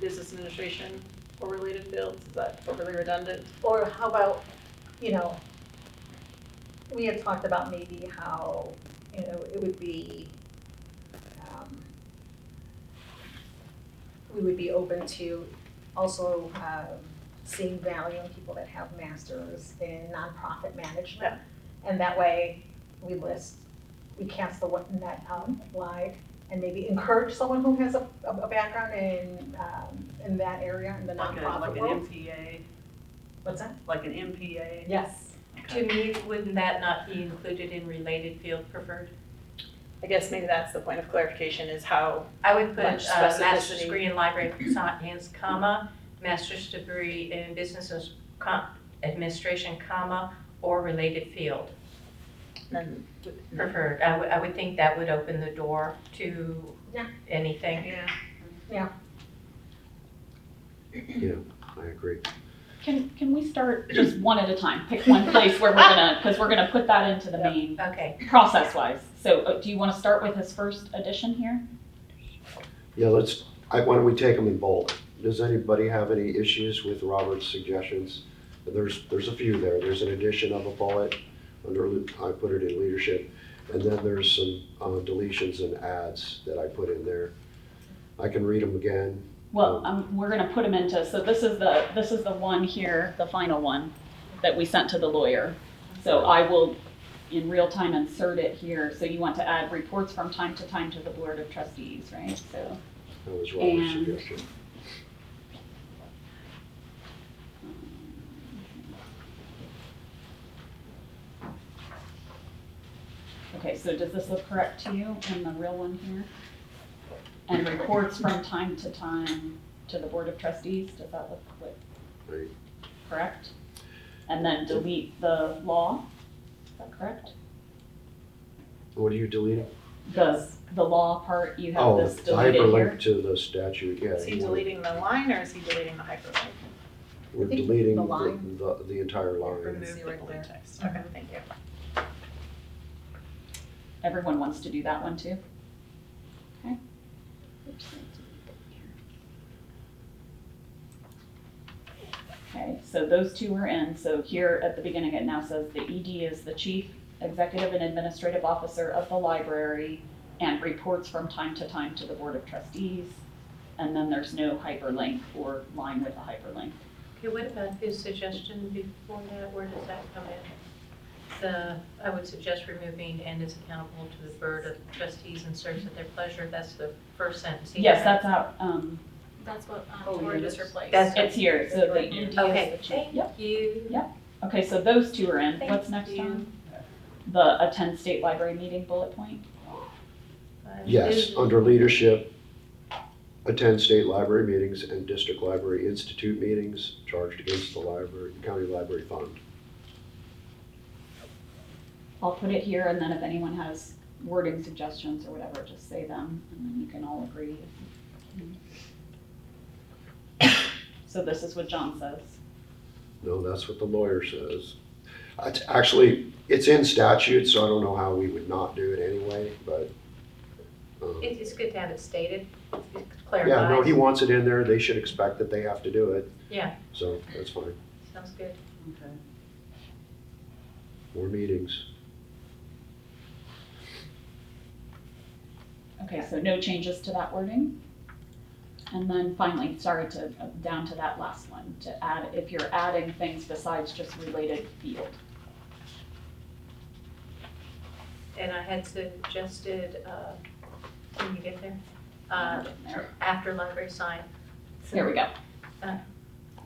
business administration or related fields, is that overly redundant? Or how about, you know, we had talked about maybe how, you know, it would be, um, we would be open to also, um, seeing value in people that have masters in nonprofit management. And that way, we list, we cast the what- net out wide and maybe encourage someone who has a, a a background in, um, in that area, in the Like a, nonprofit like an world. MPA, What's that? like an MPA? Yes. To me, wouldn't that not be included in related field preferred? I guess maybe that's the point of clarification is how, I would put Much uh, master's specificity. degree in library science, comma, master's degree in business as- com- administration, comma, or related field and Mm-hmm. preferred. I would, I would think that would open the door to Yeah. anything. Yeah. I agree. Can, can we start just one at a time? Pick one place where we're gonna, because we're gonna put that into the main Okay, process wise. So uh, do you want to start with his first edition here? Yeah, let's, I, why don't we take them in bulk? Does anybody have any issues with Robert's suggestions? There's, there's a few there. There's an addition of a bullet under, le- I put it in leadership. And then there's some uh, deletions and adds that I put in there. I can read them again. Well, um, we're gonna put him into, so this is the, this is the one here, the final one that we sent to the lawyer. So I will in real time insert it here. So you want to add reports from time to time to the board of trustees, right? So, That was Robert's And- suggestion. okay, so does this look correct to you in the real one here? And reports from time to time to the board of trustees, does that look like Right. correct? And then delete the law, is that correct? What are you deleting? The, the law part, you have Oh, this the deleted here? hyperlink to the statute, yeah. is he you want- deleting the line or is he deleting the hyperlink? We're I think deleting the the, line. the, the entire line. Remove the the right bold there. text, okay, thank you. Everyone wants to do that one too? Okay. Okay, so those two are in, so here at the beginning, it now says the ED is the chief executive and administrative officer of the library and reports from time to time to the board of trustees. And then there's no hyperlink or line with a hyperlink. okay, what about his suggestion before that, where does that come in? The, I would suggest removing and is accountable to the board of trustees and serves at their pleasure, that's the first sentence. here. Yes, that's out, um, That's what, Oh, um, Tori yeah, just that's- replaced. That's, oh, it's here, so the ED is Okay, the chief. Yep, you. okay, so those two are in, what's Thank next you. Tom? The attend state library meeting bullet point? Yes, under leadership, attend state library meetings and district library institute meetings charged against the library, county library fund. I'll put it here, and then if anyone has wording suggestions or whatever, just say them, and then you can all agree. if you can. So this is what John says. No, that's what the lawyer says. It's actually, it's in statute, so I don't know how we would not do it anyway, but. um, It is good to have it stated, it Yeah, no, he clarifies, wants it in there. They should expect that they have to do it. Yeah. So that's fine. sounds good. Okay. More meetings. Okay, so no changes to that wording. And then finally, sorry to, down to that last one, to add, if you're adding things besides just related field. And I had suggested, uh, can you get there? Uh, add in there. after library sign, There we go.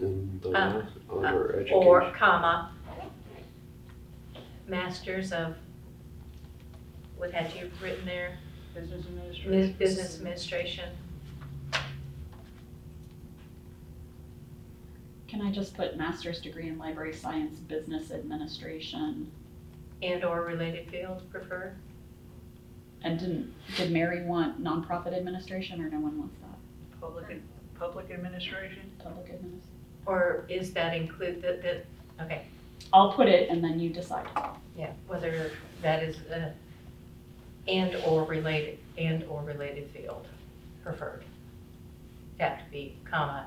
In the, Uh, under education. or comma, masters of, what had you written there? Business Mis- administration? Business administration, Can I just put master's degree in library science, business administration? and/or related field preferred. And didn't, did Mary want nonprofit administration or no one wants that? Public, ad- public administration? Public administration. Or is that include, that, that, okay, I'll put it and then you decide. yeah, whether that is, uh, and/or related, and/or related field preferred. have to be comma